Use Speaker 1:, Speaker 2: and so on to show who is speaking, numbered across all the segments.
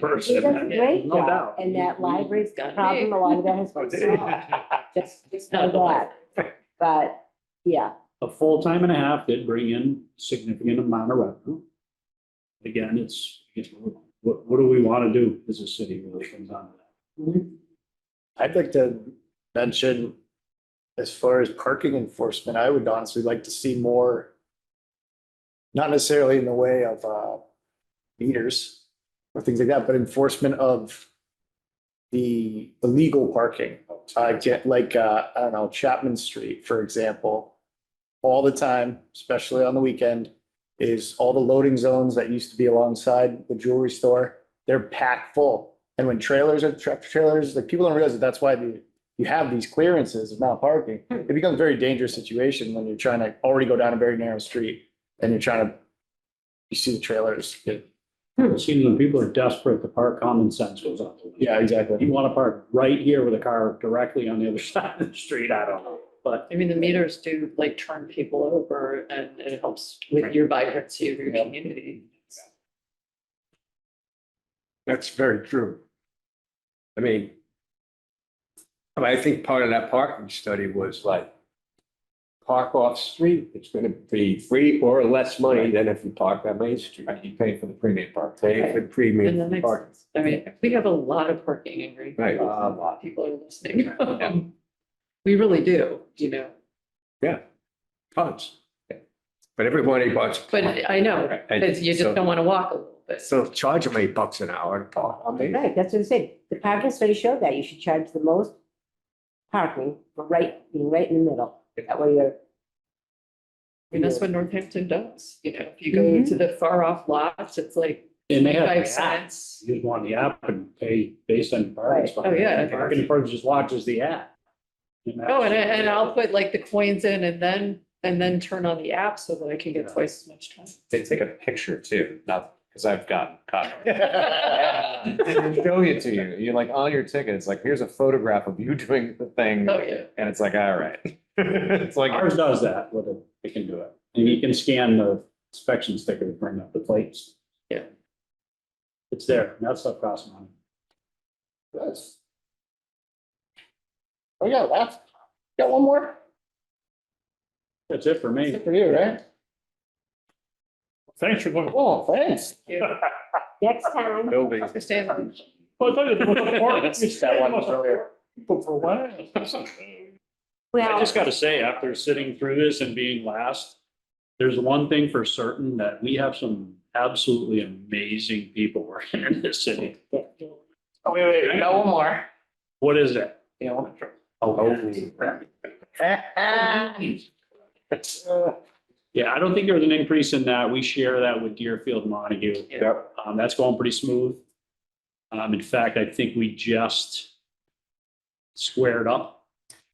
Speaker 1: person.
Speaker 2: She does a great
Speaker 1: No
Speaker 2: job,
Speaker 1: doubt. Mm-hmm.
Speaker 2: and that library's
Speaker 3: Got
Speaker 2: problem
Speaker 3: big.
Speaker 2: along that has been solved, just, just for that. But, yeah,
Speaker 1: A full time and a half did bring in significant amount of revenue. Again, it's, it's, what, what do we want to do as a city really comes down to that.
Speaker 4: I'd like to mention, as far as parking enforcement, I would honestly like to see more. Not necessarily in the way of uh meters or things like that, but enforcement of. The illegal parking, uh get like, uh, I don't know, Chapman Street, for example. All the time, especially on the weekend, is all the loading zones that used to be alongside the jewelry store, they're packed full. And when trailers are tractor trailers, like people don't realize that that's why the, you have these clearances of not parking. It becomes a very dangerous situation when you're trying to already go down a very narrow street and you're trying to, you see the trailers.
Speaker 1: It seems when people are desperate to park, common sense goes out. the window.
Speaker 4: Yeah,
Speaker 1: If You
Speaker 4: exactly.
Speaker 1: want to park right here with a car directly on the other side of the street, I don't know, but
Speaker 3: I mean, the meters do like turn people over and it helps with your vibrancy of your
Speaker 4: Yeah.
Speaker 3: community.
Speaker 5: That's very true. I mean, I mean, I think part of that parking study was like, park off street, it's gonna be free or less money than if you park on Main Street. You pay for the premium park. Pay for the
Speaker 3: And that
Speaker 5: premium
Speaker 3: makes
Speaker 5: park.
Speaker 3: sense. I mean, we have a lot of parking in Greenfield.
Speaker 5: Right.
Speaker 3: A lot of people are listening. Um, We really do, you know,
Speaker 5: Tons. But everybody bucks.
Speaker 3: but I know,
Speaker 5: And
Speaker 3: because you
Speaker 5: so-
Speaker 3: just don't want to walk a little bit.
Speaker 5: So charge them eight bucks an hour to park on Main.
Speaker 2: right, that's what I said, the parking study showed that, you should charge the most parking, for right, being right in the middle, that way you're.
Speaker 3: I mean, that's what Northampton does, you know, if you go to the far off lots, it's like
Speaker 1: And they have
Speaker 3: five
Speaker 1: the app.
Speaker 3: cents.
Speaker 1: You just want the app and pay based on your parking
Speaker 2: Right.
Speaker 1: spot.
Speaker 3: Oh, yeah.
Speaker 1: And Parking enforcement just watches the app.
Speaker 3: Oh, and I, and I'll put like the coins in and then, and then turn on the app so that I can get twice as much time.
Speaker 6: They take a picture too, not, because I've gotten caught.
Speaker 3: Oh,
Speaker 6: And they show it to you. You're like, on your ticket, it's like, here's a photograph of you doing the thing,
Speaker 3: Oh, yeah.
Speaker 6: and it's like, all right. It's like,
Speaker 1: Ours does that, with it, it can do it. And you can scan the inspection sticker to bring up the plates.
Speaker 3: Yeah.
Speaker 1: It's there, and that stuff costs money.
Speaker 4: Yes. Oh, yeah, that's, got one more?
Speaker 1: That's it for me.
Speaker 4: Good for you, right?
Speaker 1: Thanks for going.
Speaker 4: Oh, thanks.
Speaker 2: Next time.
Speaker 5: Building.
Speaker 3: For Stanley.
Speaker 4: That one was earlier.
Speaker 1: I
Speaker 2: Well,
Speaker 1: just gotta say, after sitting through this and being last, there's one thing for certain, that we have some absolutely amazing people working in this city.
Speaker 4: Oh, wait, wait,
Speaker 1: we got one
Speaker 4: more.
Speaker 1: What is Oh, it?
Speaker 4: Yeah, one more.
Speaker 1: Yeah, I don't think there was an increase in that. We share that with Deerfield and Montague.
Speaker 5: Yep.
Speaker 1: Um, that's going pretty smooth. Um, in fact, I think we just squared up.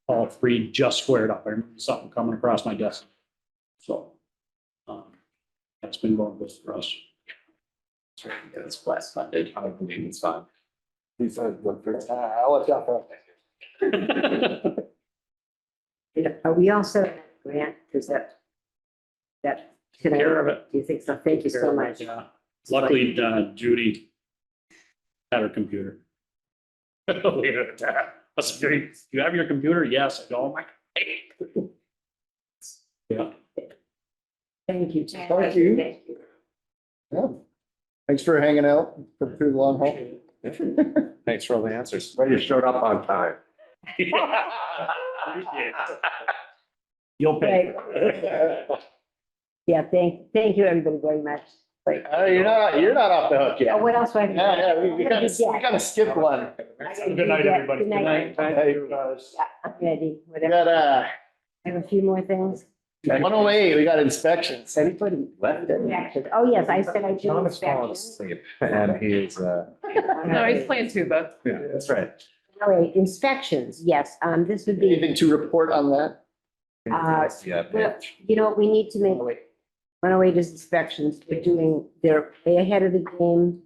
Speaker 1: All three just squared up. I remember something coming across my desk. So, um, that's been going good for us.
Speaker 3: It's less funded.
Speaker 6: I don't believe it's fine.
Speaker 5: He said, "Look, there's-"
Speaker 4: I'll let you off that.
Speaker 2: are we all set, on that Grant, is that, that, can I,
Speaker 1: Care of
Speaker 2: do
Speaker 1: it.
Speaker 2: you think so? Thank you so much.
Speaker 1: Yeah. Luckily, uh, Judy had her computer. Leave it at that. That's great. You have your computer? Yes. I don't. Yeah.
Speaker 2: Thank you.
Speaker 4: Thank you.
Speaker 2: Thank you.
Speaker 4: Yeah. Thanks for hanging out for through the long haul.
Speaker 6: Thanks for all the answers.
Speaker 5: But you showed up on time.
Speaker 1: You'll pay.
Speaker 2: Yeah, thank, thank you, everybody, very much.
Speaker 4: Oh, you're not, you're not off the hook yet.
Speaker 2: Oh, what else do I have? to do?
Speaker 4: Yeah, yeah, we- we
Speaker 2: What did
Speaker 4: gotta,
Speaker 2: you
Speaker 4: we
Speaker 2: get?
Speaker 4: gotta skip one.
Speaker 2: I gotta
Speaker 1: Good night,
Speaker 2: do that.
Speaker 1: everybody.
Speaker 2: Good night. Yeah, I'm ready,
Speaker 4: We
Speaker 2: whatever.
Speaker 4: got, uh,
Speaker 2: I have a few more things.
Speaker 4: one oh eight, we got inspections.
Speaker 6: Anybody left?
Speaker 2: Reactions. Oh, yes, I said I do
Speaker 6: Thomas fallen
Speaker 2: inspections.
Speaker 6: asleep, and he is, uh,
Speaker 3: No, he's playing tuba.
Speaker 6: yeah, that's right.
Speaker 2: All right, inspections, yes, um, this would be,
Speaker 4: Anything to report on that?
Speaker 2: Uh,
Speaker 6: Yeah,
Speaker 2: well,
Speaker 6: man.
Speaker 2: you know, we need to make,
Speaker 4: Oh, wait.
Speaker 2: 108 is inspections, they're doing, they're way ahead of the game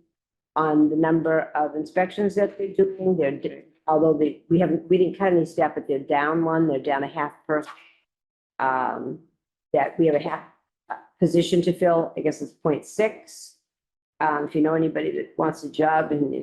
Speaker 2: on the number of inspections that they're doing, they're, di- although they, we haven't, we didn't cut any staff, but they're down one, they're down a half person. Um, that we have a half uh, position to fill, I guess it's point six. Um, if you know anybody that wants a job and